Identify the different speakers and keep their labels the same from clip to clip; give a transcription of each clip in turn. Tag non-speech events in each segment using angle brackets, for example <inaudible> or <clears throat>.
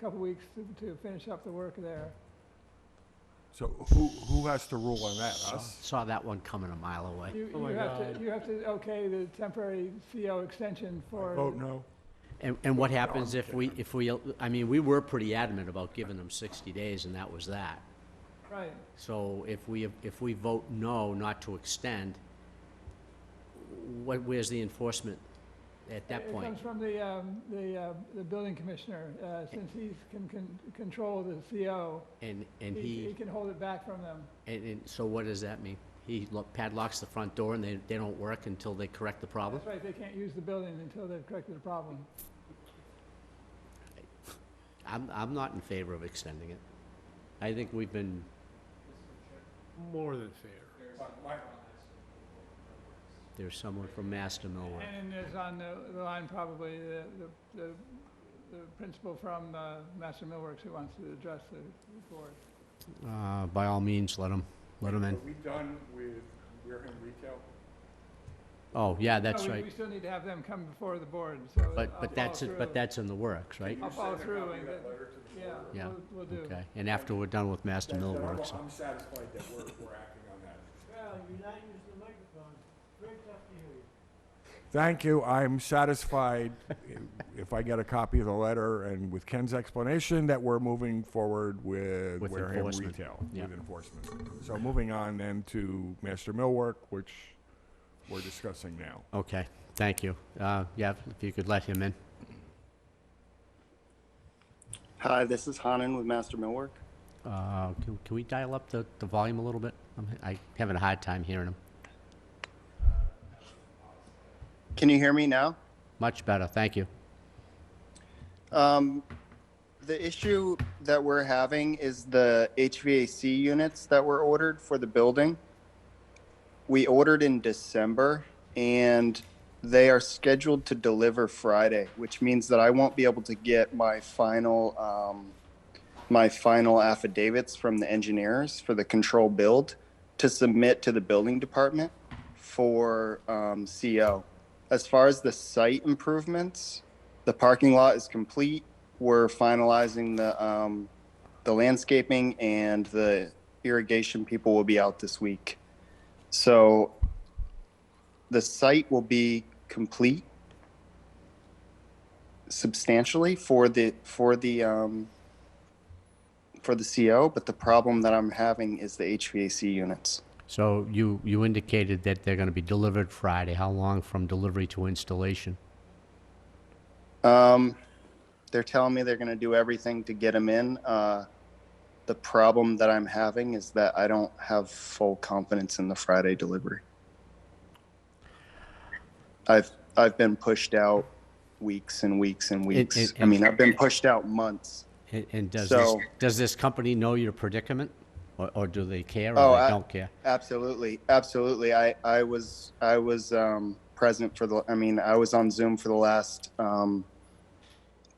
Speaker 1: couple weeks to- to finish up the work there.
Speaker 2: So who, who has to rule on that, us?
Speaker 3: Saw that one coming a mile away.
Speaker 1: You,
Speaker 4: Oh
Speaker 1: you
Speaker 4: my
Speaker 1: have to,
Speaker 4: God.
Speaker 1: you have to okay the temporary CO extension for.
Speaker 2: Vote no?
Speaker 3: And, and what happens if we, if we, I mean, we were pretty adamant about giving them 60 days, and that was that.
Speaker 1: Right,
Speaker 3: So if we, if we vote no, not to extend, what, where's the enforcement at that
Speaker 1: It
Speaker 3: point?
Speaker 1: comes from the, um, the, uh, the building commissioner, uh, since he can, can control the CO.
Speaker 3: And, and
Speaker 1: He
Speaker 3: he,
Speaker 1: can hold it back from them.
Speaker 3: and, and so what does that mean? He lo- padlocks the front door and they, they don't work until they correct the problem?
Speaker 1: That's right, they can't use the building until they've corrected the problem.
Speaker 3: I'm, I'm not in favor of extending it. I think we've been,
Speaker 4: More than fair.
Speaker 3: there's someone from Mass to Millwood.
Speaker 1: And there's on the the line probably the, the- the, the principal from uh, Master Millworks who wants to address the the board.
Speaker 3: Uh, by all means, let them, let them in.
Speaker 5: Are we done with Wareham Retail?
Speaker 3: Oh, yeah,
Speaker 1: No,
Speaker 3: that's
Speaker 1: we-
Speaker 3: right.
Speaker 1: We still need to have them come before the board, so.
Speaker 3: But,
Speaker 1: I'll
Speaker 3: but that's,
Speaker 1: follow
Speaker 3: it- but
Speaker 1: through.
Speaker 3: that's in the works, right?
Speaker 5: Can you
Speaker 1: I'll follow
Speaker 5: send a
Speaker 1: through
Speaker 5: copy of
Speaker 1: and
Speaker 5: that
Speaker 1: get-
Speaker 5: letter to the
Speaker 1: Yeah,
Speaker 5: board?
Speaker 3: Yeah,
Speaker 1: we'll, we'll do.
Speaker 3: Okay, and after we're done with Master
Speaker 5: That's-
Speaker 3: Mill
Speaker 5: I'm-
Speaker 3: Works,
Speaker 5: I'm satisfied that we're, we're acting on that.
Speaker 2: Thank you, I'm satisfied <laughs> if I get a copy of the letter and with Ken's explanation that we're moving forward with
Speaker 3: With
Speaker 2: Wareham
Speaker 3: enforcement.
Speaker 2: Retail.
Speaker 3: Yeah.
Speaker 2: With enforcement. So moving on then to Master Millwork, which we're discussing now.
Speaker 3: okay, thank you. Uh, yeah, if you could let him in.
Speaker 6: Hi, this is Hanan with Master Millwork.
Speaker 3: Uh, can, can we dial up the, the volume a little bit? I'm, I having a hard time hearing him.
Speaker 6: Can you hear me now?
Speaker 3: Much better, thank you.
Speaker 6: Um, the issue that we're having is the HVAC units that were ordered for the building. We ordered in December and they are scheduled to deliver Friday, which means that I won't be able to get my final um, my final affidavits from the engineers for the control build to submit to the building department for um, CO. As far as the site improvements, the parking lot is complete. We're finalizing the, um, the landscaping and the irrigation people will be out this week. So the site will be complete substantially for the, for the, um, for the CO, but the problem that I'm having is the HVAC units.
Speaker 3: So you, you indicated that they're gonna be delivered Friday. How long from delivery to installation?
Speaker 6: Um, they're telling me they're going to do everything to get them in. Uh, the problem that I'm having is that I don't have full confidence in the Friday delivery. I've I've been pushed out weeks and weeks and weeks.
Speaker 3: it-
Speaker 6: I mean, I've been pushed out months.
Speaker 3: And, and does this,
Speaker 6: So-
Speaker 3: does this company know your predicament? Or, or do they care
Speaker 6: Oh,
Speaker 3: or they
Speaker 6: I-
Speaker 3: don't care?
Speaker 6: Absolutely, absolutely. I I was I was um, present for the. I mean, I was on Zoom for the last um,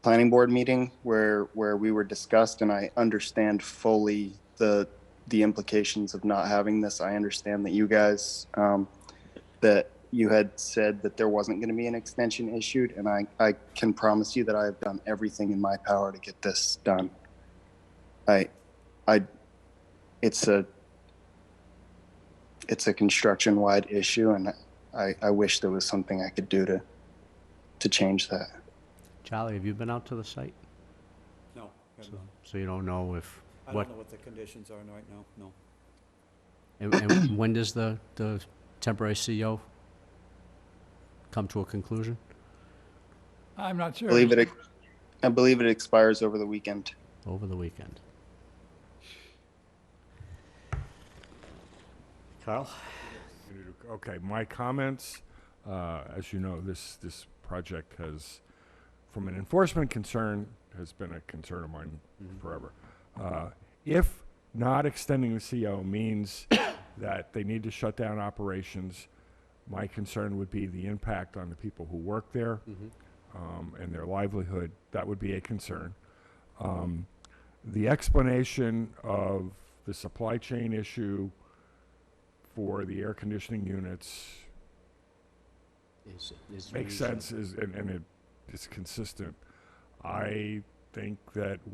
Speaker 6: planning board meeting where where we were discussed, and I understand fully the the implications of not having this. I understand that you guys um, that you had said that there wasn't going to be an extension issued, and I I can promise you that I have done everything in my power to get this done. I I it's a it's a construction wide issue and I, I wish there was something I could do to to change that.
Speaker 3: Charlie, have you been out to the site?
Speaker 7: No, I don't
Speaker 3: So-
Speaker 7: know.
Speaker 3: So you don't know if,
Speaker 7: I
Speaker 3: what,
Speaker 7: don't know what the conditions are right now, no.
Speaker 3: And, and <clears throat> when does the, the temporary CEO come to a conclusion?
Speaker 1: I'm not sure.
Speaker 6: I believe it I believe it expires over the weekend.
Speaker 3: Over the weekend. Carl?
Speaker 2: Okay, my comments, uh, as you know, this, this project has, from an enforcement concern, has been a concern of mine forever. Uh, If not extending the CO means <coughs> that they need to shut down operations, my concern would be the impact on the people who work there um, and their livelihood. That would be a concern. Um, The explanation of the supply chain issue for the air conditioning units
Speaker 3: Is- is
Speaker 2: makes
Speaker 3: reasonable.
Speaker 2: sense is, and, and it is consistent. I think that